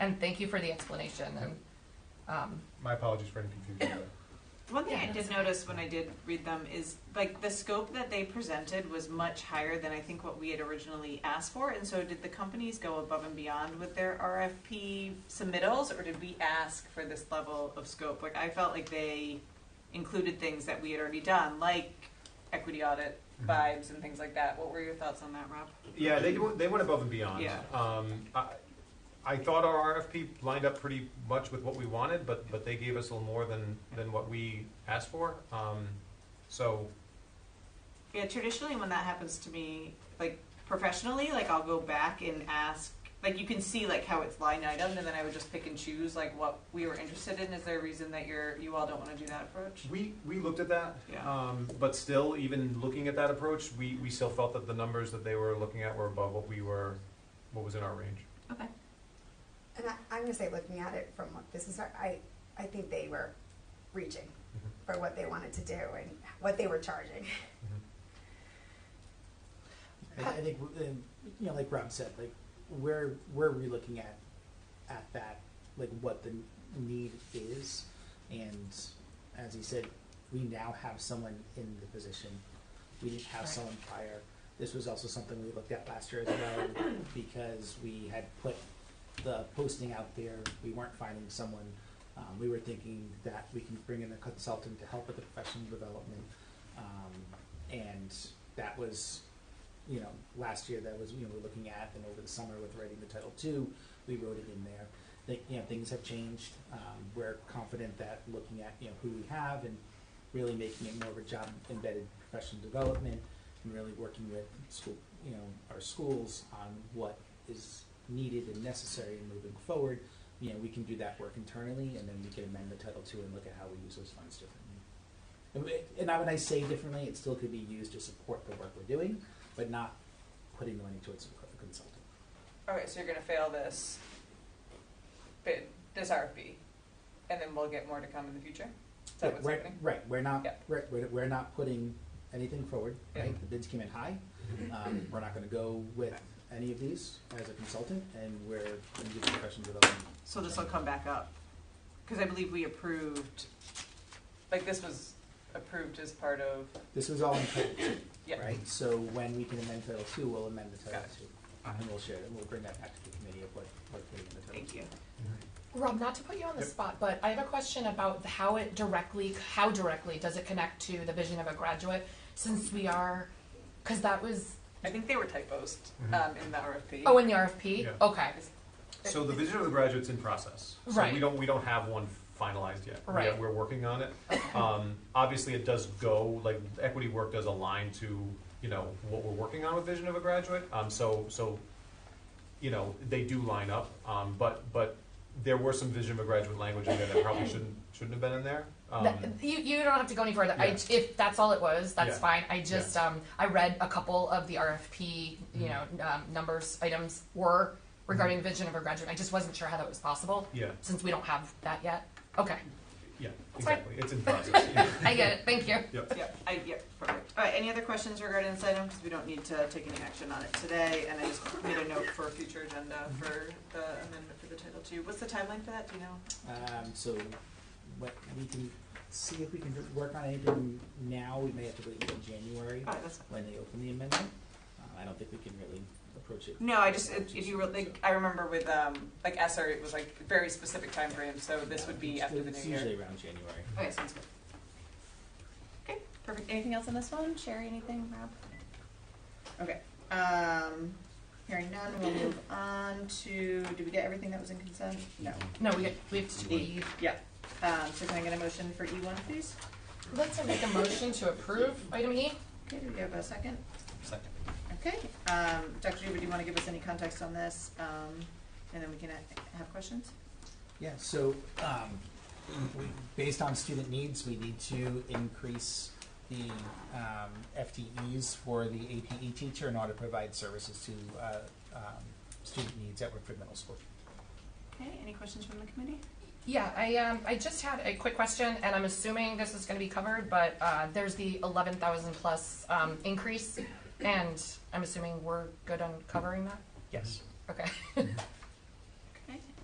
And thank you for the explanation and, um, My apologies for any confusion. there. One thing Yeah. I did notice when I did read them is like the scope that they presented was much higher than I think what we had originally asked for. And so did the companies go above and beyond with their RFP submittals or did we ask for this level of scope? Like I felt like they included things that we had already done, like equity audit vibes and things like that. What were your thoughts on that, Rob? Yeah, they do- they went above and beyond. Yeah. Um, I, I thought our RFP lined up pretty much with what we wanted, but but they gave us a little more than than what we asked for. Um, so Yeah, traditionally when that happens to me, like professionally, like I'll go back and ask like you can see like how it's line item and then I would just pick and choose like what we were interested in. Is there a reason that you're you all don't want to do that approach? we we looked at that. Yeah. Um, but still, even looking at that approach, we we still felt that the numbers that they were looking at were above what we were, what was in our range. Okay. And I, I'm gonna say, looking at it from what business, are- I, I think they were reaching for what they wanted to do and what they were charging. Mm-hmm. I, I think um, you know, like Rob said, like where where are we looking at at that, like what the need is, and as he said, we now have someone in the position. We didn't have Right. someone prior. This was also something we looked at last year as well, because we had put the posting out there. We weren't finding someone. Um, we were thinking that we can bring in a consultant to help with the professional development, um, and that was you know, last year that was, you know, we're looking at, and over the summer with writing the Title II, we wrote it in there. That, you know, things have changed. Um, we're confident that looking at, you know, who we have and really making it more of a job embedded professional development and really working with school, you know, our schools on what is needed and necessary and moving forward, you know, we can do that work internally and then we can amend the Title II and look at how we use those funds differently. And we- And now when I say differently, it still could be used to support the work we're doing, but not putting the money towards a consultant. All right, so you're going to fail this bid, this RFP. And then we'll get more to come in the future. Is that Yeah, what's we're- happening? Right, we're not, Yeah. right, we're, we're not putting anything forward, Yeah. Mm-hmm. right? The bids came in high. Um, we're not gonna go with any of these as a consultant, and we're gonna do the professional development. So this will come back up. Cuz I believe we approved like this was approved as part of This was all in Title yeah. II, right? So when we can amend Title II, we'll amend the Title Got it. II. And we'll share, and we'll bring that back to the committee of what, what we in the Title Thank you. Rob, not to put you on the Yep. spot, but I have a question about how it directly, how directly does it connect to the vision of a graduate? Since we are, cause that was, I think they were typos Mm-hmm. um, in the RFP. oh, in the RFP? Yeah. Okay, So the vision of the graduate's in process. So Right. We don't, we don't have one finalized yet. We- Right. We're working on it. Um, obviously, it does go, like, equity work does align to, you know, what we're working on with vision of a graduate. Um, so, so, you know, they do line up, um, but, but there were some vision of a graduate language in there that probably shouldn't, shouldn't have been in there. Um, That- you, you don't have to go any further. I, Yeah. if that's all it was, that's Yeah. Mm-hmm. fine. I just um, I read a couple of the RFP, you know, um, numbers items were regarding vision of a graduate. I just wasn't sure how that was possible Yeah, since we don't have that yet. Okay, yeah, fine. exactly. It's in process, yeah. I get it. Thank you. Yep, I, yep, perfect. All right, any other questions regarding this item? Because we don't need to take any action on it today, and I just made a note for a future agenda for the amendment for the Title II. What's the timeline for that, do you know? Um, so, what, we can see if we can work on anything now, we may have to wait until January All right, that's fine. when they open the amendment. Uh, I don't think we can really approach it. No, I just, if if you were, like, I remember with, um, like, SR, it was like very specific timeframe, so this would be after the new It's year. usually around January. Okay, sounds good. Okay, perfect. Anything else on this one? Sherry, anything, Rob? Okay, um, hearing none, we'll move on to, did we get everything that was in consent? No. No, we we have to E. leave. Yeah, um, so can I get a motion for E one, please? Let's make a motion to approve item E. Okay, do we have a second? Second. Okay, um, Dr. Juba, do you wanna give us any context on this, um, and then we can a- have questions? Yeah, so, um, we, based on student needs, we need to increase the, um, FTEs for the APE teacher in order to provide services to, uh, um, student needs at Woodford Middle School. Okay, any questions from the committee? Yeah, I, um, I just had a quick question, and I'm assuming this is gonna be covered, but, uh, there's the eleven thousand plus, um, increase, and I'm assuming we're good on covering that? Yes. Okay.